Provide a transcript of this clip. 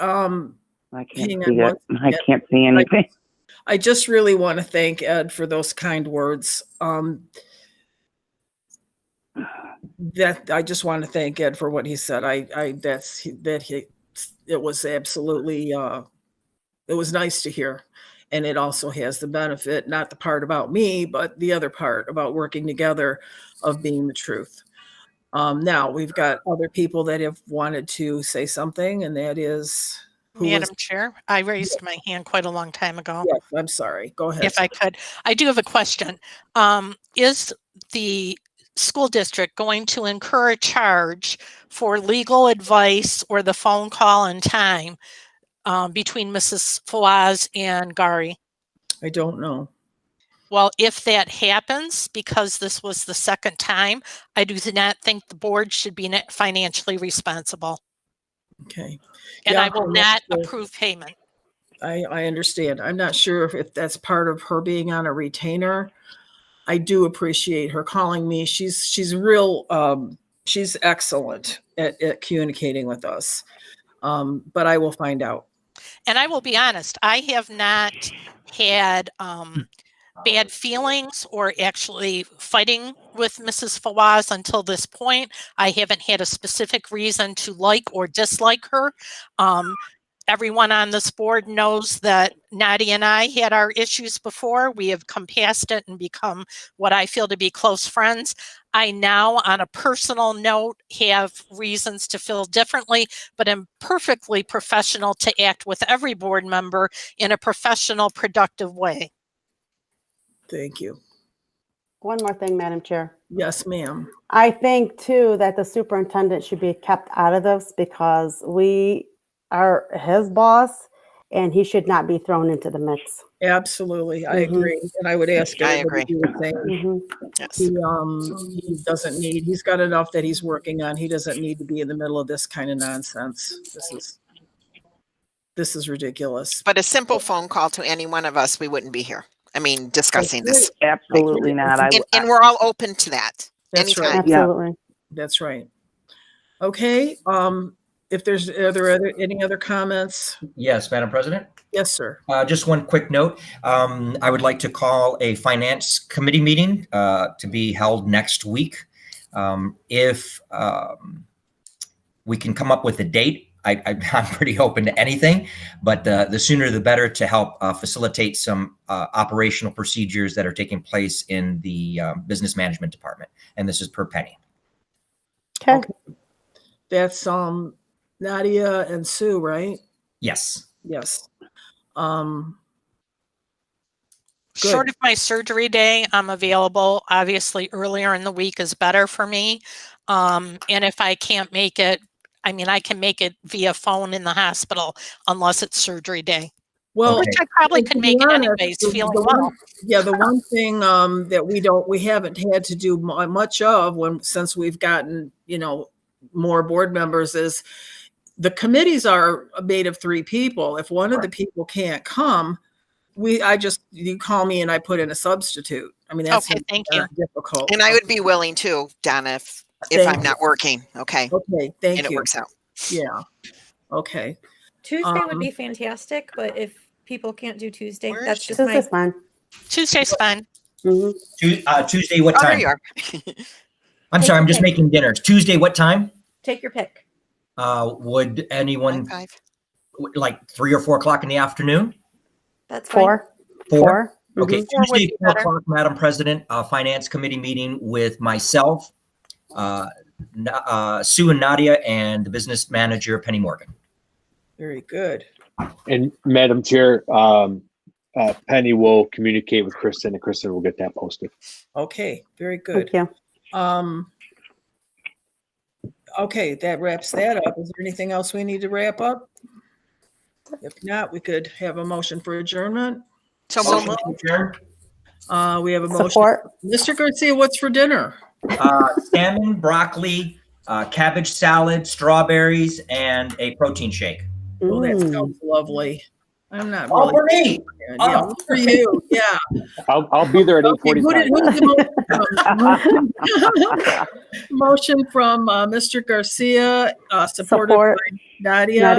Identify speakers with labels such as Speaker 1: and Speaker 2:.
Speaker 1: um,
Speaker 2: I can't
Speaker 1: Hang on
Speaker 2: see
Speaker 1: one
Speaker 2: it. I
Speaker 1: second.
Speaker 2: can't see anything.
Speaker 1: I just really want to thank Ed for those kind words. Um, that I just want to thank Ed for what he said. I, I that's that he it was absolutely uh, it was nice to hear, and it also has the benefit not the part about me, but the other part about working together of being the truth. Um, now we've got other people that have wanted to say something, and that is who is-
Speaker 3: Madam Chair, I raised my hand quite a long time ago.
Speaker 1: yes, I'm sorry. Go ahead.
Speaker 3: If I could, I do have a question. Um, is the school district going to incur a charge for legal advice or the phone call and time um, between Mrs. Fawaz and Gary?
Speaker 1: I don't know.
Speaker 3: Well, if that happens, because this was the second time, I do not think the board should be net- financially responsible.
Speaker 1: Okay.
Speaker 3: And
Speaker 1: Yeah,
Speaker 3: I will
Speaker 1: I'm not
Speaker 3: not
Speaker 1: sure.
Speaker 3: approve payment.
Speaker 1: I, I understand. I'm not sure if, if that's part of her being on a retainer. I do appreciate her calling me. She's, she's real, um, she's excellent at, at communicating with us. Um, but I will find out.
Speaker 3: and I will be honest, I have not had um, bad feelings or actually fighting with Mrs. Fawaz until this point. I haven't had a specific reason to like or dislike her. Um, everyone on this board knows that Nadia and I had our issues before. We have come past it and become what I feel to be close friends. I now, on a personal note, have reasons to feel differently but am perfectly professional to act with every board member in a professional, productive way.
Speaker 1: Thank you.
Speaker 4: One more thing, Madam Chair.
Speaker 1: Yes, ma'am.
Speaker 4: I think too that the superintendent should be kept out of this because we are his boss and he should not be thrown into the mix.
Speaker 1: Absolutely. I
Speaker 4: Mhm.
Speaker 1: agree. And I would ask.
Speaker 5: I
Speaker 1: everybody to do the same.
Speaker 4: Mhm.
Speaker 5: Yes.
Speaker 1: He, um, he doesn't need, he's got enough that he's working on. He doesn't need to be in the middle of this kind of nonsense. This is, this is ridiculous.
Speaker 5: But a simple phone call to any one of us, we wouldn't be here. I mean, discussing this.
Speaker 2: Absolutely not. I,
Speaker 5: And,
Speaker 2: w-
Speaker 5: and we're all open to that.
Speaker 1: That's right.
Speaker 5: Anytime.
Speaker 2: Yeah.
Speaker 4: Absolutely.
Speaker 1: That's right. Okay, um, if there's, are there other, any other comments?
Speaker 6: Yes, Madam President.
Speaker 1: Yes, sir.
Speaker 6: Uh, just one quick note. Um, I would like to call a finance committee meeting uh, to be held next week. Um, if um, we can come up with a date, I, I, I'm pretty open to anything, but uh, the sooner the better to help uh, facilitate some uh, operational procedures that are taking place in the uh, business management department. And this is per penny.
Speaker 4: Okay.
Speaker 1: That's, um, Nadia and Sue, right?
Speaker 6: Yes.
Speaker 1: Yes. Um, Good.
Speaker 3: Short of my surgery day, I'm available. Obviously, earlier in the week is better for me. Um, and if I can't make it, I mean, I can make it via phone in the hospital unless it's surgery day,
Speaker 1: well,
Speaker 3: which I probably
Speaker 1: to
Speaker 3: could
Speaker 1: be
Speaker 3: make it
Speaker 1: honest,
Speaker 3: anyways,
Speaker 1: the- the
Speaker 3: feeling
Speaker 1: one-
Speaker 3: well.
Speaker 1: yeah, the one thing, um, that we don't, we haven't had to do mu- much of when, since we've gotten, you know, more board members is the committees are made of three people. If one of the people can't come, we, I just, you call me and I put in a substitute. I mean, that's.
Speaker 3: Okay, thank you.
Speaker 1: not difficult.
Speaker 5: And I would be willing to, Donna, if, if
Speaker 1: Thank
Speaker 5: I'm
Speaker 1: you.
Speaker 5: not working. Okay.
Speaker 1: Okay,
Speaker 5: And
Speaker 1: thank
Speaker 5: it
Speaker 1: you.
Speaker 5: works out.
Speaker 1: Yeah. Okay,
Speaker 7: Tuesday
Speaker 1: Um,
Speaker 7: would be fantastic, but if people can't do Tuesday,
Speaker 5: Where
Speaker 7: that's
Speaker 5: is
Speaker 7: just
Speaker 4: This
Speaker 7: my
Speaker 4: is fine.
Speaker 3: Tuesday's fine.
Speaker 4: Mhm.
Speaker 6: Tu- uh, Tuesday, what
Speaker 5: Oh, there
Speaker 6: time?
Speaker 5: you are.
Speaker 6: I'm sorry, I'm just making dinner. Tuesday, what time?
Speaker 7: take your pick.
Speaker 6: Uh, would
Speaker 1: Mm.
Speaker 6: anyone
Speaker 5: High five.
Speaker 6: w- like three or four o'clock in the afternoon?
Speaker 7: That's fine.
Speaker 4: Four. Four.
Speaker 3: Four Mm-hmm.
Speaker 6: Okay,
Speaker 3: would
Speaker 6: Tuesday,
Speaker 3: be
Speaker 6: four
Speaker 3: better.
Speaker 6: o'clock, Madam President, uh, Finance Committee meeting with myself, uh, Na- uh, Sue and Nadia and the business manager Penny Morgan.
Speaker 1: very good.
Speaker 8: And Madam Chair, um, uh, Penny will communicate with Kristen and Kristen will get that posted.
Speaker 1: Okay, very good.
Speaker 4: Thank you.
Speaker 1: Um, okay, that wraps that up. Is there anything else we need to wrap up? If not, we could have a motion for adjournment.
Speaker 5: So
Speaker 6: Motion
Speaker 5: moved.
Speaker 6: to adjourn.
Speaker 1: Uh, we have a motion.
Speaker 4: Support.
Speaker 1: Mr. Garcia, what's for dinner?
Speaker 6: Uh, Salmon, broccoli, uh, cabbage salad, strawberries, and a protein shake.
Speaker 1: Oh, that
Speaker 4: Mm.
Speaker 1: sounds lovely. I'm not
Speaker 6: All
Speaker 1: really.
Speaker 4: Oh,
Speaker 1: Yeah, for
Speaker 6: for me. Oh.
Speaker 1: you, yeah.
Speaker 8: I'll, I'll be there at eight
Speaker 1: Okay, who
Speaker 8: forty-five.
Speaker 1: did- who did the motion- Motion from, uh, Mr. Garcia, uh, supported by
Speaker 4: Support.
Speaker 1: Nadia.
Speaker 4: Nadia.